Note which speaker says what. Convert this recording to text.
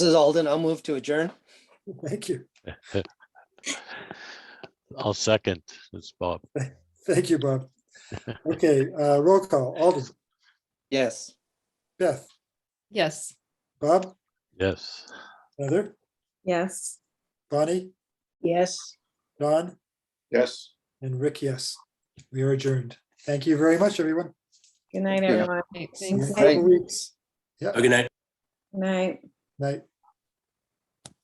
Speaker 1: This is Alden. I'll move to adjourn.
Speaker 2: Thank you.
Speaker 3: I'll second. It's Bob.
Speaker 2: Thank you, Bob. Okay, uh, roll call. Alden,
Speaker 1: Yes.
Speaker 2: Beth,
Speaker 4: Yes.
Speaker 2: Bob,
Speaker 3: Yes.
Speaker 2: Heather,
Speaker 5: Yes.
Speaker 2: Bonnie,
Speaker 5: Yes.
Speaker 2: Don,
Speaker 6: Yes.
Speaker 2: and Rick, yes. We are adjourned. Thank you very much, everyone.
Speaker 5: Good night,
Speaker 1: Yeah.
Speaker 5: everyone.
Speaker 4: Okay,
Speaker 2: See you in a
Speaker 4: Thanks.
Speaker 2: couple weeks.
Speaker 7: Good night.
Speaker 5: Good night.
Speaker 2: Night.